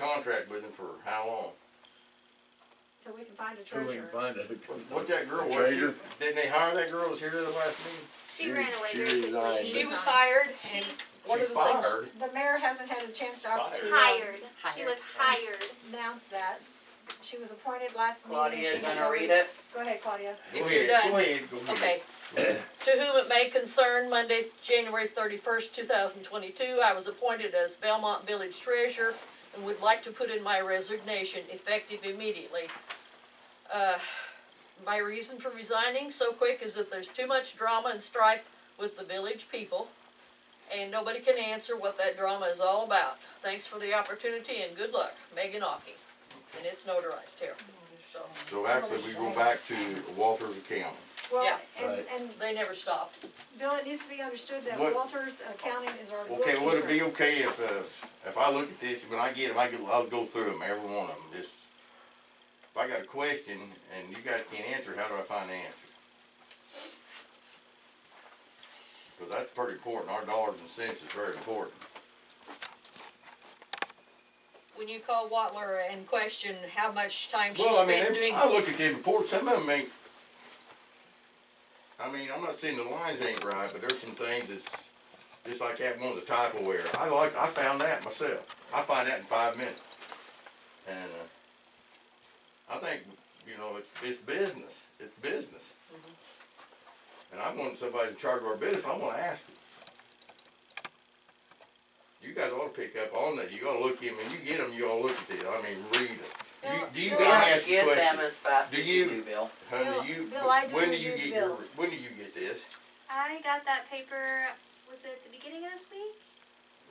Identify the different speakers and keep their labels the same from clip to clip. Speaker 1: contract with him for how long?
Speaker 2: So we can find a
Speaker 3: So we
Speaker 2: treasurer.
Speaker 3: can find a.
Speaker 1: What that girl was, she,
Speaker 3: Treasure.
Speaker 1: didn't they hire that girl that was here the last meeting?
Speaker 4: She ran away
Speaker 3: She
Speaker 4: very quickly.
Speaker 3: resigned.
Speaker 5: She was hired and one
Speaker 1: She
Speaker 5: of the things,
Speaker 1: fired.
Speaker 2: The mayor hasn't had a chance to opportunity to
Speaker 4: Hired. She was hired.
Speaker 2: announce that. She was appointed last meeting. and
Speaker 6: Claudia, you
Speaker 2: she's
Speaker 6: gonna
Speaker 2: already-
Speaker 6: read it?
Speaker 2: Go ahead, Claudia.
Speaker 1: Go
Speaker 5: you're
Speaker 1: ahead,
Speaker 5: done.
Speaker 1: go ahead, go ahead.
Speaker 5: okay. To whom it may concern, Monday, January thirty-first, two thousand twenty-two, I was appointed as Belmont Village Treasurer and would like to put in my resignation effective immediately. Uh, My reason for resigning so quick is that there's too much drama and strife with the village people, and nobody can answer what that drama is all about. Thanks for the opportunity and good luck, Megan Ockie. And it's notarized here, so,
Speaker 1: So actually, we go back to Walter's account.
Speaker 2: Well,
Speaker 5: Yeah.
Speaker 2: and,
Speaker 3: Right.
Speaker 2: and
Speaker 5: they never stopped.
Speaker 2: Bill, it needs to be understood that
Speaker 1: What-
Speaker 2: Walters Accounting is our bookkeeper.
Speaker 1: Okay, would it be okay if, uh, if I look at this, when I get them, I could, I'll go through them, every one of them, just, if I got a question and you guys can't answer, how do I find the answer? Cause that's pretty important, our dollars and cents is very important.
Speaker 5: When you call Watler and question how much time she's
Speaker 1: Well, I mean,
Speaker 5: been
Speaker 1: they-
Speaker 5: doing,
Speaker 1: I look at them reports, some of them ain't, I mean, I'm not saying the lines ain't right, but there's some things that's, just like that one's a typo error. I like, I found that myself. I find that in five minutes. And, uh, I think, you know, it's, it's business, it's business. And I want somebody in charge of our business, I wanna ask them. You guys ought to pick up on that, you ought to look at them, and you get them, you ought to look at it, I mean, read it.
Speaker 2: Now-
Speaker 1: Do you, do you
Speaker 2: now-
Speaker 6: We
Speaker 2: Let me
Speaker 1: guys
Speaker 6: don't
Speaker 1: ask a
Speaker 6: get
Speaker 1: question?
Speaker 6: them as fast
Speaker 1: Do
Speaker 6: as you
Speaker 1: you-
Speaker 6: do, Bill.
Speaker 2: Bill-
Speaker 1: Honey, you,
Speaker 2: Bill, I
Speaker 1: when
Speaker 2: do
Speaker 1: do you
Speaker 2: do the
Speaker 1: get your,
Speaker 2: bills.
Speaker 1: when do you get this?
Speaker 4: I got that paper, was it the beginning of this week?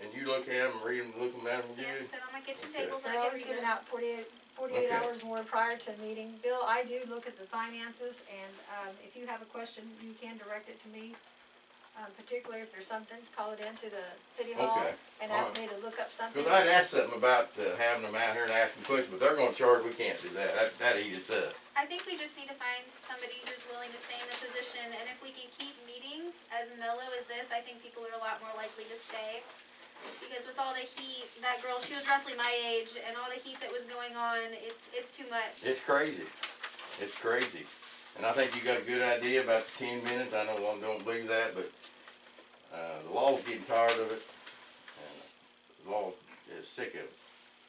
Speaker 1: And you look at them, read them, look them at them
Speaker 4: Yeah,
Speaker 1: good?
Speaker 4: just sit on my kitchen
Speaker 1: Okay.
Speaker 4: table so
Speaker 2: They're
Speaker 4: I
Speaker 2: always
Speaker 4: can read
Speaker 2: giving
Speaker 4: it.
Speaker 2: out 48 48
Speaker 1: Okay.
Speaker 2: hours more prior to a meeting. Bill, I do look at the finances, and um, if you have a question, you can direct it to me. Um, Particularly if there's something, call it into the city hall
Speaker 1: Okay,
Speaker 2: and ask me
Speaker 1: alright.
Speaker 2: to look up something.
Speaker 1: Cause I'd asked something about uh, having them out here and asking questions, but they're gonna charge, we can't do that, that, that eat us up.
Speaker 4: I think we just need to find somebody who's willing to stay in the position, and if we can keep meetings as mellow as this, I think people are a lot more likely to stay. Because with all the heat, that girl, she was roughly my age, and all the heat that was going on, it's, it's too much.
Speaker 1: It's crazy, it's crazy. And I think you got a good idea about the ten minutes, I know I don't believe that, but, uh, the law's getting tired of it. And the law is sick of it,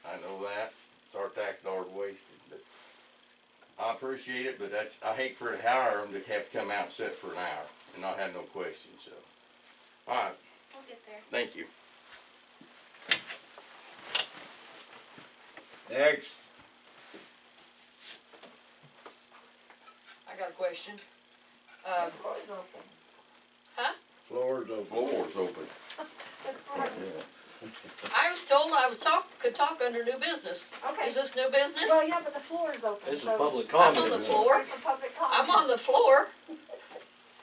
Speaker 1: I know that, it's our tax dollars wasted, but I appreciate it, but that's, I hate for to hire them to have to come out and sit for an hour and not have no questions, so. Alright,
Speaker 4: We'll get there.
Speaker 1: thank you.
Speaker 3: Next,
Speaker 5: I got a question. Um,
Speaker 3: floor's open.
Speaker 1: Floor's open.
Speaker 5: I was told I was talk, could talk under new business.
Speaker 2: Okay,
Speaker 5: Is this new business?
Speaker 2: well, yeah, but the floor is open,
Speaker 7: This is
Speaker 2: so-
Speaker 7: public
Speaker 5: I'm
Speaker 7: comment.
Speaker 5: on the
Speaker 7: now.
Speaker 5: floor.
Speaker 2: For public
Speaker 5: I'm on
Speaker 2: comment.
Speaker 5: the floor.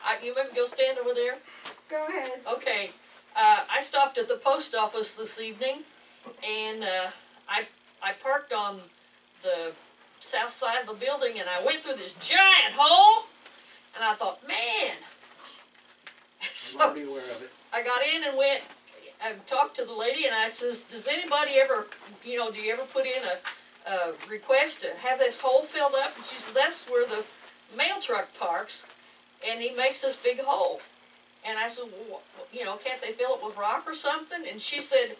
Speaker 5: I, you maybe go stand over there?
Speaker 2: Go ahead.
Speaker 5: Okay, uh, I stopped at the post office this evening and, uh, I, I parked on the south side of the building and I went through this giant hole and I thought, man. So-
Speaker 3: I'm already aware of it.
Speaker 5: I got in and went, I talked to the lady and I says, does anybody ever, you know, do you ever put in a, a request to have this hole filled up? And she said, that's where the mail truck parks and he makes this big hole. And I said, well, wh- you know, can't they fill it with rock or something? And she said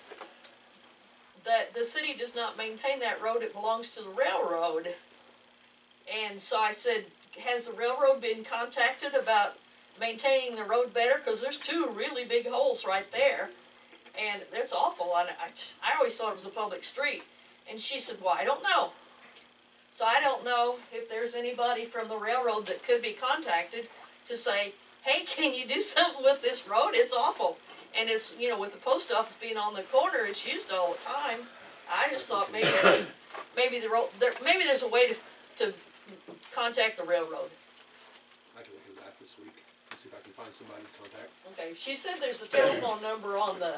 Speaker 5: that the city does not maintain that road, it belongs to the railroad. And so I said, has the railroad been contacted about maintaining the road better, cause there's two really big holes right there. And it's awful, and I, I always thought it was a public street, and she said, well, I don't know. So I don't know if there's anybody from the railroad that could be contacted to say, hey, can you do something with this road, it's awful. And it's, you know, with the post office being on the corner, it's used all the time, I just thought maybe, maybe the road, there, maybe there's a way to, to contact the railroad.
Speaker 8: I can look into that this week and see if I can find somebody to contact.
Speaker 5: Okay, she said there's a telephone number on the,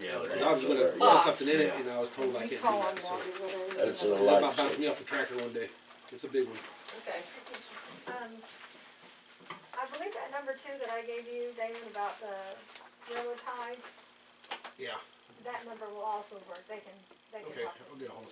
Speaker 1: Yeah.
Speaker 8: 'Cause I was gonna put
Speaker 5: Box.
Speaker 8: something in it
Speaker 3: Yeah.
Speaker 8: and I was told I
Speaker 2: You
Speaker 8: can't do
Speaker 2: call on
Speaker 8: that, so.
Speaker 2: Walter, whatever.
Speaker 3: That's a
Speaker 8: It's about
Speaker 3: lot.
Speaker 8: bouncing me off the tractor one day. It's a big one.
Speaker 5: okay.
Speaker 2: Um, I believe that number two that I gave you, Damon, about the railroad ties,
Speaker 8: Yeah,
Speaker 2: that number will also work. They can, they can
Speaker 8: okay,
Speaker 2: talk.
Speaker 8: I'll get a hold of